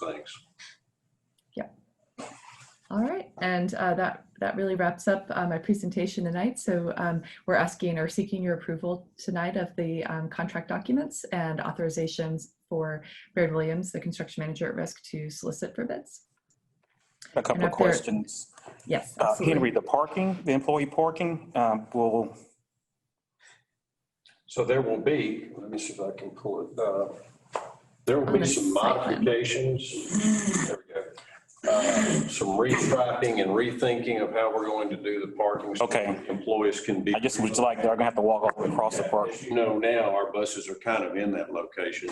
Thanks. All right, and uh, that, that really wraps up uh, my presentation tonight. So um, we're asking or seeking your approval tonight of the um, contract documents and authorizations for Baird Williams, the construction manager at risk, to solicit for bids. A couple of up there- questions. Yes, Uh, Henry, absolutely. the parking, the employee parking, um, will, So there will be, let me see if I can pull it, uh, there will On be the some site plan. modifications. There we go. Uh, Some restriping and rethinking of how we're going to do the parking. so Okay. Employees can be. I just was like, they're gonna have to walk all the way across the park. As you know now, our buses are kind of in that location.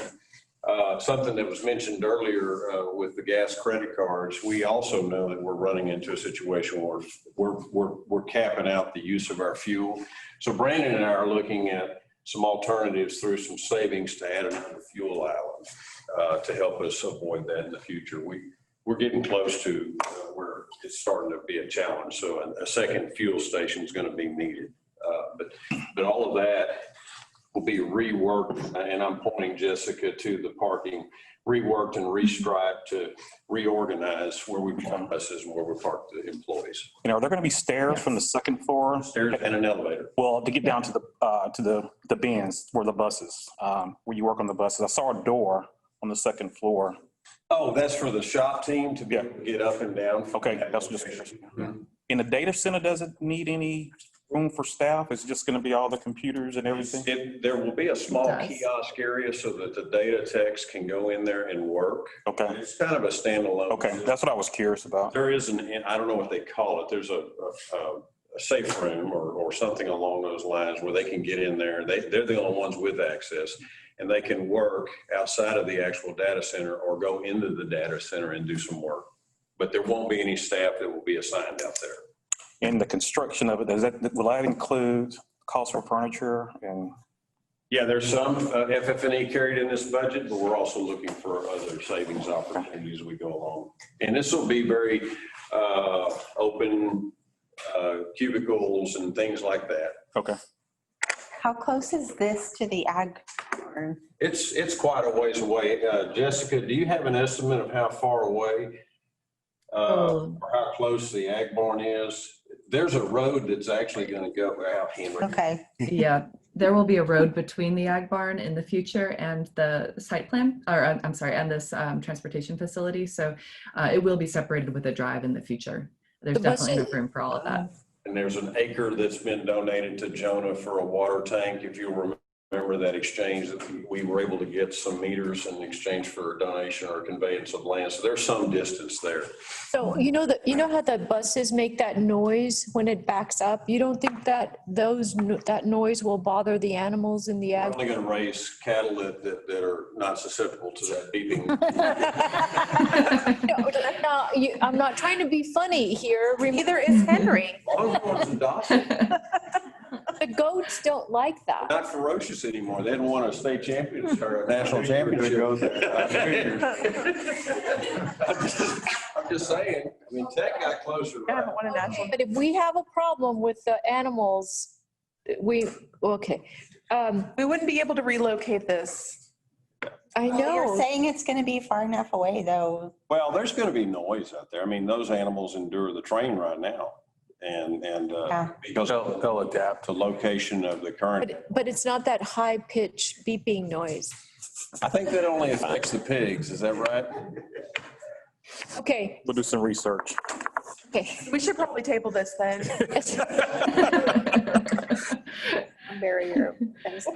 Uh, Something that was mentioned earlier uh, with the gas credit cards, we also know that we're running into a situation where we're, we're, we're capping out the use of our fuel. So Brandon and I are looking at some alternatives through some savings to add another fuel island uh, to help us avoid that in the future. We, we're getting close to uh, where it's starting to be a challenge. So a- a second fuel station is going to be needed. Uh, But, but all of that will be reworked, and I'm pointing Jessica to the parking, reworked and restriped to reorganize where we park buses and where we park the employees. you know, are there gonna be stairs from the second floor? Stairs and an elevator. Well, to get down to the, uh, to the, the bins where the buses, um, where you work on the buses. I saw a door on the second floor. Oh, that's for the shop team to be Yeah. able to get up and down. Mm-hmm. Okay, that's just curious. And the data center doesn't need any room for staff? It's just gonna be all the computers and everything? It- There will be a small It does. kiosk area so that the data techs can go in there and work. Okay, It's kind of a standalone. okay, that's what I was curious about. There is an, I don't know what they call it, there's a, a- a, a safe room or, or something along those lines where they can get in there. They, they're the only ones with access. And they can work outside of the actual data center or go into the data center and do some work. But there won't be any staff that will be assigned out there. And the construction of it, does that, will that include cost for furniture and? Yeah, there's some uh, FF&E carried in this budget, but we're also looking for other savings opportunities as we go along. And this will be very uh, open uh, cubicles and things like that. Okay. How close is this to the ag barn? It's, it's quite a ways away. Uh, Jessica, do you have an estimate of how far away? uh, Oh, Or how close the ag barn is? There's a road that's actually going to go out Henry. Okay, Yeah, there will be a road between the ag barn in the future and the site plan, or uh, I'm sorry, and this um, transportation facility. So uh, it will be separated with a drive in the future. There's The bus- definitely enough room for all of that. And there's an acre that's been donated to Jonah for a water tank. If you remember that exchange, that we- we were able to get some meters in exchange for a donation or conveyance of land. So there's some distance there. So you know that, you know how the buses make that noise when it backs up? You don't think that those, no- that noise will bother the animals in the We're ag? only going to raise cattle that, that that are not susceptible to that beeping. No, no, you- I'm not trying to be funny here. Remember, neither is Henry. Longhorns and Dachshunds The goats don't like that. not ferocious anymore. They didn't want a state Hmm. championship or a national championship. I'm just- I'm just saying, I mean, Tech got closer. I don't want a national. But if we have a problem with the animals, we, okay. Um, We wouldn't be able to relocate this. I Oh, You're know, saying it's going to be far enough away, though. Well, there's going to be noise out there. I mean, those animals endure the train right now. And, and uh, Yeah. because They'll, they'll adapt. the location of the current, but, but it's not that high pitched beeping noise. I think that only affects the pigs, is that right? Okay, We'll do some research. okay. We should probably table this then. Barrier.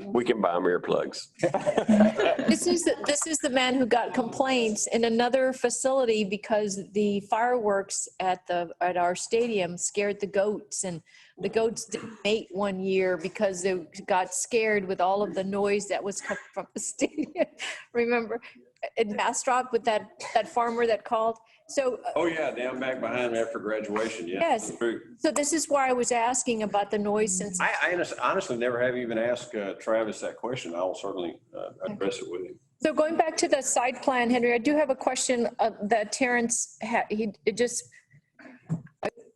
We can buy them earplugs. This is, the- this is the man who got complaints in another facility because the fireworks at the, at our stadium scared the goats. And the goats didn't mate one year because they got scared with all of the noise that was coming from the stadium. Remember in Bastrop with that, that farmer that called? So, uh, Oh, yeah, down back behind after graduation, yeah. Yes. that's true. so this is why I was asking about the noise since I, I honest- honestly never have even asked uh, Travis that question. I'll certainly uh, address it with him. So going back to the side plan, Henry, I do have a question uh, that Terrence had, he it just,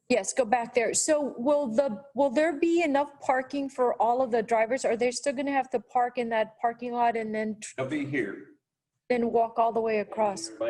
yes, go back there. So will the, will there be enough parking for all of the drivers? Are they still going to have to park in that parking lot and then, He'll be here. then walk all the way across?